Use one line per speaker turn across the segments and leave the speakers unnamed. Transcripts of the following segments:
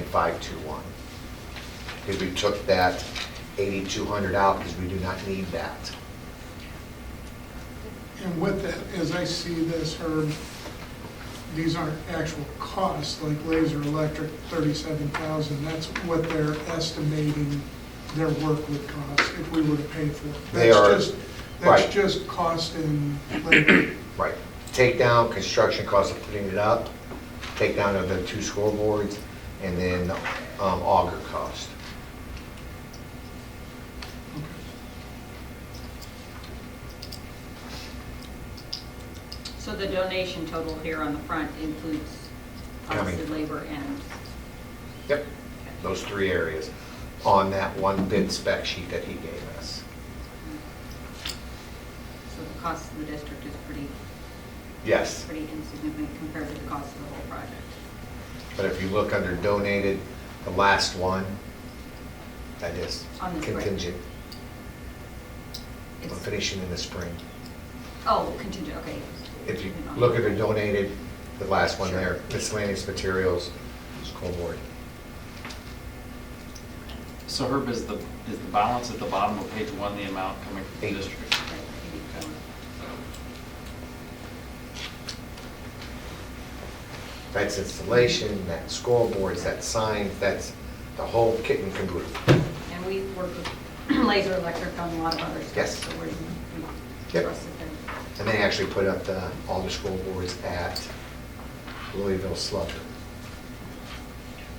69521. Because we took that 8,200 out because we do not need that.
And with that, as I see this, Herb, these aren't actual costs, like laser electric, thirty-seven thousand, that's what they're estimating their work would cost if we were to pay for it.
They
That's
are-
just-
right.
That's just cost and labor.
Right. Take down construction costs of putting it up, take down of the two scoreboards, and then um, auger cost.
So the donation total here on the front includes cost
County.
of labor and,
Yep, those three areas on that one bid spec sheet that he gave us.
so the cost of the district is pretty,
Yes,
pretty insignificant compared to the cost of the whole project.
but if you look under donated, the last one, that is
On the spring.
contingent. We're
It's-
finishing in the spring.
Oh, contingent, okay.
If you look at the donated, the last one there,
Sure.
miscellaneous materials, school board.
So Herb, is the, is the balance at the bottom of page one, the amount coming from
Eight.
the district?
That's installation, that's scoreboards, that's signs, that's the whole kit and caboodle.
And we work with laser electric on a lot of other stuff.
Yes.
So we're, we
Yep.
trust that they're-
And they actually put up the, all the scoreboards at Louisville Slugger.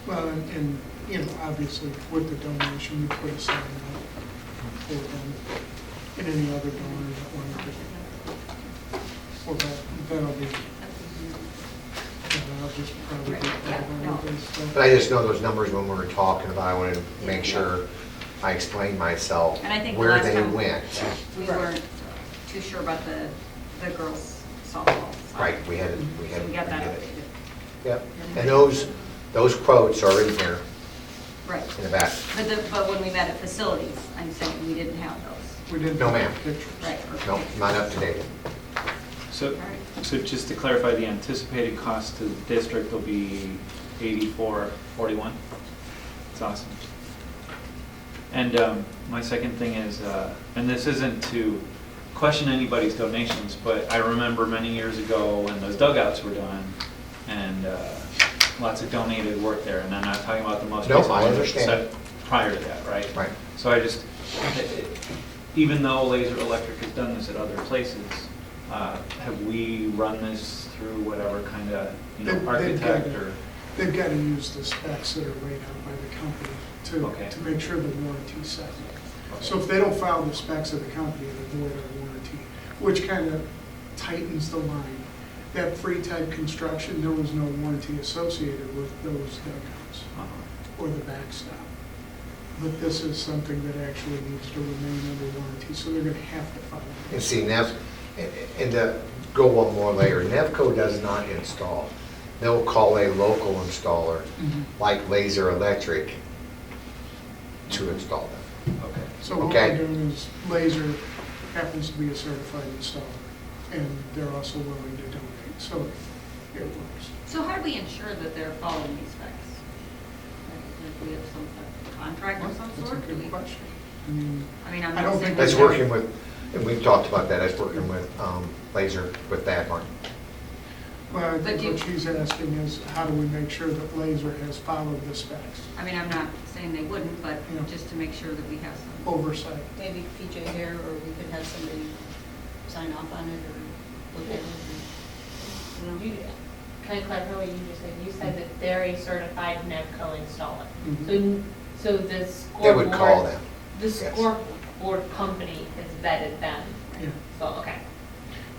Well, and- and, you know, obviously with the donation, we put aside that for them and any other donors that wanted to. Well, that, that'll be, that'll just probably. be
Right, yeah, no.
But I just know those numbers when we were talking about, I wanted to make
Yeah.
sure I explained myself
And I think the
where
last
they
time-
went.
We weren't too sure about the, the girls softball. side.
Right, we had, it- we had.
So
it-
we got that
did it.
updated.
Yep, and those, those quotes are in here,
Right.
in the back.
But the, but when we met at facilities, I'm saying we didn't have those,
We didn't.
No, ma'am.
Pictures.
right? or-
No, not up to date.
So,
Alright.
so just to clarify, the anticipated cost to the district will be eighty-four forty-one? That's awesome. And um, my second thing is, uh, and this isn't to question anybody's donations, but I remember many years ago when those dugouts were done, and uh, lots of donated work there, and I'm not talking about the most
No,
recent
I
one,
understand.
except prior to that, right?
Right.
So I just, even though Laser Electric has done this at other places, uh, have we run this through whatever kind of, you
They-
know,
they've
architect
got-
or?
They've got to use the specs that are laid out by the company
Okay.
to, to make sure the warranty's set. So if they don't follow the specs of the company, they void our warranty, which kind of tightens the line. That free-type construction, there was no warranty associated with those dugouts
Uh-huh.
or the backstop. But this is something that actually needs to remain under warranty, so they're going to have to follow. it.
And see, Nev, and- and to go one more layer, Nevco does not install. They'll call a local installer,
Mhm.
like Laser Electric, to install them.
Okay.
So what
Okay.
we're doing is Laser happens to be a certified installer, and they're also willing to donate, so it works.
So how do we ensure that they're following these specs? Like, Do we have some type of contract of some
That's a
sort? Do
good
we-
question. I mean,
I mean, I'm
I
not
don't
saying.
think
That's
we have-
working with, and we've talked about that, that's working with um, Laser, with Bad Martin.
well, I
But do-
think what she's asking is, how do we make sure that Laser has followed the specs?
I mean, I'm not saying they wouldn't, but
Yeah. Oh.
just to make sure that we have some.
Oversight.
maybe PJ here, or we could have somebody sign off on it or look at it.
You, can I clarify what you just said? You said that they're a certified NEVCO installer.
Mm-hmm.
So, so the
They
scoreboard.
would call them.
The
yes.
scoreboard company has vetted them.
Yeah.
So, okay. I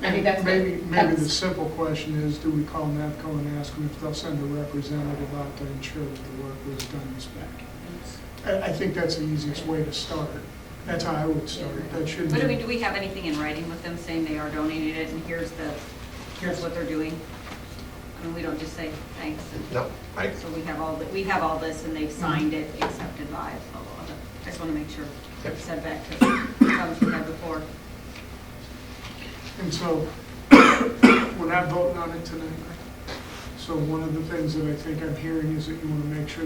And
think that's.
Maybe,
what-
maybe the
that's-
simple question is, do we call NAPCO and ask them if they'll send a representative out to ensure that the work was done as spec? I, I think that's the easiest way to start. That's how I would start. That shouldn't.
But I mean, do we have anything in writing with them saying they are donating it and here's the, here's what they're doing? I mean, we don't just say thanks and.
No, I,
So we have all, the- we have all this, and they've signed it, accepted by, blah, blah, blah. I just want to make sure, it's said back to the comments we had before.
And so, we're not voting on it tonight. So one of the things that I think I'm hearing is that you want to make sure